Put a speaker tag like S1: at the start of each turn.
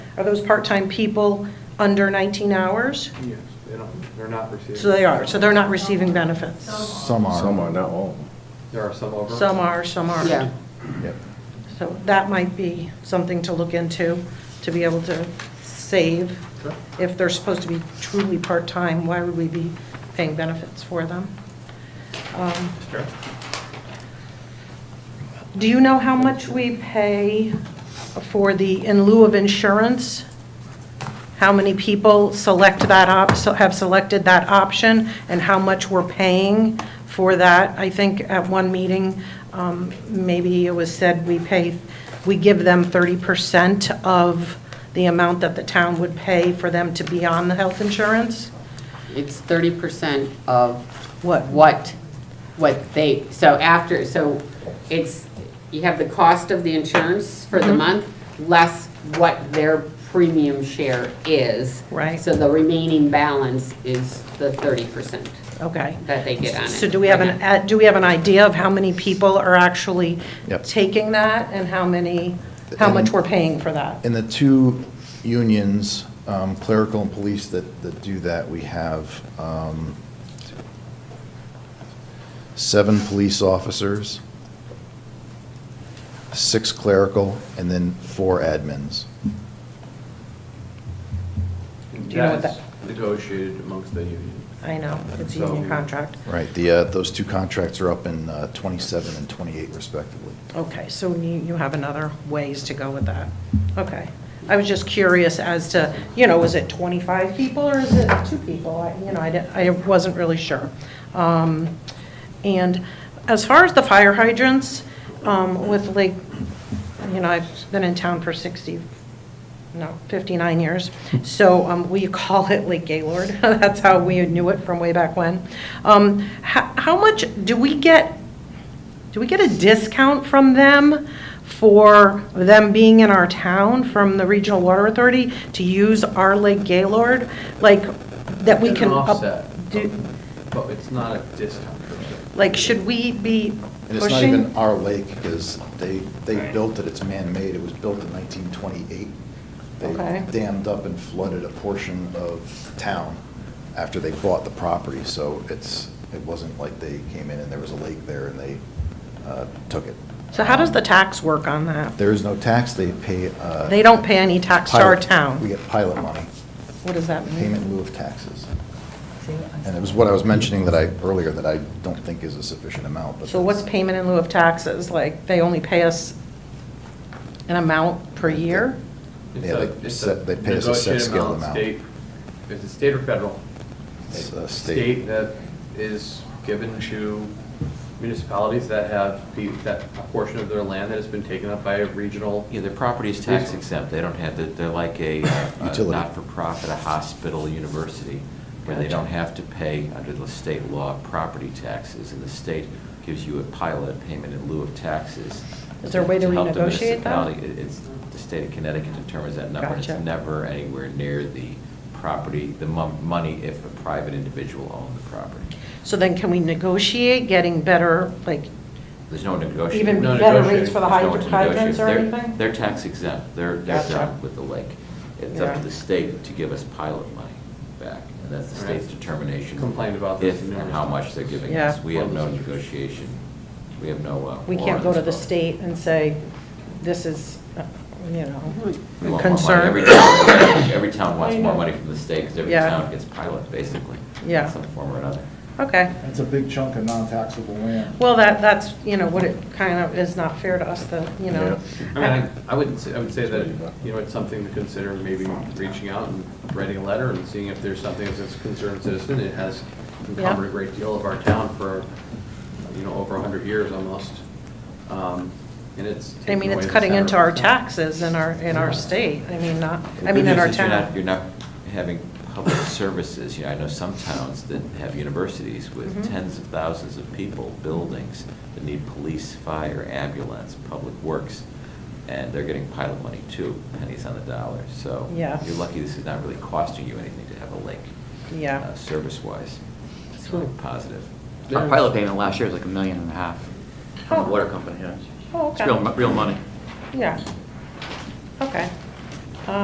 S1: Are those part-time people under 19 hours?
S2: Yes, they don't, they're not receiving.
S1: So they are, so they're not receiving benefits.
S3: Some are.
S4: Some are, not all.
S2: There are some over.
S1: Some are, some aren't.
S5: Yeah.
S4: Yep.
S1: So that might be something to look into, to be able to save.
S2: Sure.
S1: If they're supposed to be truly part-time, why would we be paying benefits for them? Um,
S2: Sure.
S1: Do you know how much we pay for the, in lieu of insurance? How many people select that op, so have selected that option, and how much we're paying for that? I think at one meeting, um, maybe it was said we pay, we give them 30% of the amount that the town would pay for them to be on the health insurance?
S5: It's thirty percent of
S1: What?
S5: what, what they, so after, so it's, you have the cost of the insurance for
S1: Mm-hmm.
S5: the month, less what their premium share is.
S1: Right.
S5: So the remaining balance is the thirty percent
S1: Okay.
S5: that they get on it.
S1: So do we have an, uh, do we have an idea of how many people are actually
S4: Yep.
S1: taking that and how many, how much we're paying for that?
S4: In the two unions, um, clerical and police that, that do that, we have um, seven police officers, six clerical, and then four admins.
S1: Do you know what
S2: That's
S1: that-
S2: negotiated amongst the union.
S1: I know, it's a
S2: So-
S1: union contract.
S4: Right, the, uh, those two contracts are up in uh, 27 and 28 respectively.
S1: Okay, so you, you have another ways to go with that. Okay. I was just curious as to, you know, is it 25 people or is it two people? I- You know, I, di- I wasn't really sure. Um, And as far as the fire hydrants, um, with Lake, you know, I've been in town for 60, no, 59 years. So um, we call it Lake Gaylord. That's how we knew it from way back when. Um, ho- How much, do we get, do we get a discount from them for them being in our town from the Regional Water Authority to use our Lake Gaylord? Like, that we
S2: It's
S1: can.
S2: an
S1: up-
S2: offset,
S1: do-
S2: But it's not a discount per se.
S1: Like, should we be
S4: And it's not even
S1: pushing?
S4: our lake, because they, they built it, it's man-made, it was built in 1928.
S1: Okay.
S4: They dammed up and flooded a portion of town after they bought the property, so it's, it wasn't like they came in and there was a lake there and they uh, took it. Um,
S1: So how does the tax work on that?
S4: There is no tax, they pay. uh,
S1: They don't pay any tax to our
S4: pilot-
S1: town. Mm-hmm.
S4: We get pilot money,
S1: What does that mean?
S4: payment in lieu of taxes. And it was what I was mentioning that I, earlier, that I don't think is a sufficient amount, but.
S1: So what's
S4: that's-
S1: payment in lieu of taxes? Like, they only pay us an amount per year?
S2: It's
S4: Yeah,
S2: a-
S4: they
S2: it's
S4: set- they pay us a set
S2: negotiated
S4: scale amount.
S2: State, is it state or federal?
S4: It's, uh, state.
S2: State that is given to municipalities that have, pe- that a portion of their land that has been taken up by a regional.
S6: Yeah, their property is tax exempt, they don't have, they're- they're like a uh, a
S4: Utility.
S6: not-for-profit, a hospital, university, where they
S1: Gotcha.
S6: don't have to pay, under the state law, property taxes, and the state gives you a pilot payment in lieu of taxes.
S1: Is there a way to
S6: help the
S1: renegotiate that?
S6: municipality. It- It's, the state of Connecticut determines that number, and it's
S1: Gotcha.
S6: never anywhere near the property, the mon- money if a private individual owned the property.
S1: So then can we negotiate getting better, like,
S6: There's no negotiation.
S1: even
S2: No
S1: better
S2: negotiating.
S1: rates for the
S6: There's no one
S1: hyd-
S6: to
S1: hydrants or
S6: negotiate. They're-
S1: anything?
S6: They're tax exempt, they're, they're
S1: Gotcha.
S6: done with the lake. It's up
S1: Yeah.
S6: to the state to give us pilot money back, and that's the state's
S2: Right.
S6: determination.
S2: Complained about this
S6: If
S2: in
S6: and
S2: numerous
S6: how
S2: times.
S6: much they're giving
S1: Yeah.
S6: us. We have no negotiation, we have no. uh,
S1: We
S6: war
S1: can't
S6: on
S1: go to
S6: this
S1: the
S6: vote.
S1: state and say, this is, uh, you
S6: We
S1: know,
S6: want more money. Every
S1: concern.
S6: town- Every town wants
S1: I
S6: more
S1: know.
S6: money from the state, because every
S1: Yeah.
S6: town gets pilot, basically. in
S1: Yeah.
S6: Some form or another.
S1: Okay.
S3: That's a big chunk of non-taxable land.
S1: Well, that, that's, you know, what it kind of is not fair to us, the, you know.
S2: I mean, I- I wouldn't, say- I would say that, you know, it's something to consider, maybe reaching out and writing a letter and seeing if there's something that's a concerned citizen. It has encumbered a great deal of our town for, you know, over 100 years almost. Um, And it's.
S1: I
S2: taken
S1: mean, it's
S2: away the
S1: cutting into
S2: center
S1: our
S2: of town.
S1: taxes in our, in our state, I mean, not,
S6: The
S1: I mean,
S6: good
S1: in our
S6: news is you're not-
S1: town.
S6: You're not having public services, you know, I know some towns that have universities with
S1: Mhm.
S6: tens of thousands of people, buildings that need police, fire, ambulance, public works, and they're getting pilot money too, pennies on the dollar, so.
S1: Yeah.
S6: You're lucky this is not really costing you anything to have a lake.
S1: Yeah.
S6: uh, Service-wise, it's
S1: Cool.
S6: really positive.
S7: Our pilot payment last year was like a million and a half from
S1: Huh.
S7: the water company, yeah.
S1: Oh,
S7: It's real,
S1: okay.
S7: real money.
S1: Yeah. Okay.